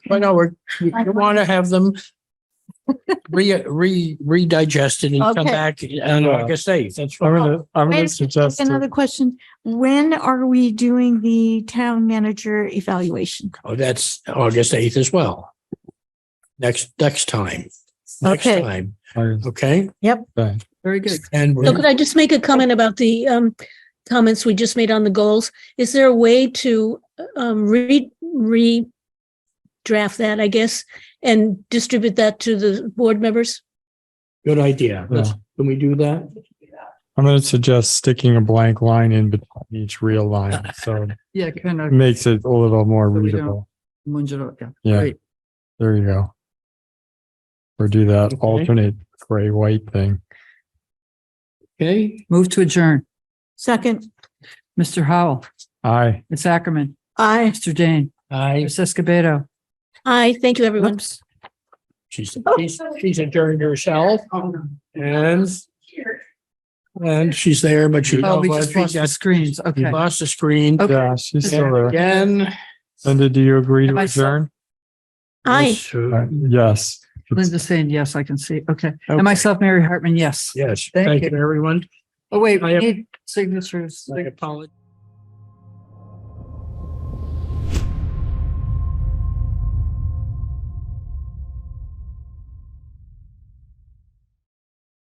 I know, we're, you want to have them re, re, redigested and come Okay. back on Yeah. August eighth. That's I'm what. gonna, I'm Wait a gonna minute, suggest Another it. question. When are we doing the town manager evaluation? Oh, that's August eighth as well. Next, next time, next Okay. time, I- okay? okay. Very good. And So we're- could I just make a comment about the um comments we just made on the goals? Is there a way to um re re draft that, I guess, and distribute that to the board members? good idea. Let's- Can we do that? I'm gonna suggest sticking a blank line in between each real line, so Yeah, kind it of. makes it a little more So we don't- readable. Munge it up, yeah. Yeah, Great. there you go. Or do that Okay. alternate gray white thing. Okay, Move to adjourn. Second, Mr. Howell, Aye. Ms. Ackerman, I, Mr. Dane, I, Ms. Escobedo. Aye, thank you, everyone. Whoops. she's, she's, she's adjourned herself Oh, and and she's there, but she Oh, we just lost the she screens. Okay. lost the screen. Okay. Yeah, she's still And there. Again. Linda, do you agree Am to I still- adjourn? Aye. Uh, Yes. Linda's saying yes, I can see. Okay. And myself, Mary Hartman, yes. Yes, Thank thank you. you, everyone. Oh, wait, I we have- need signatures. I apologize.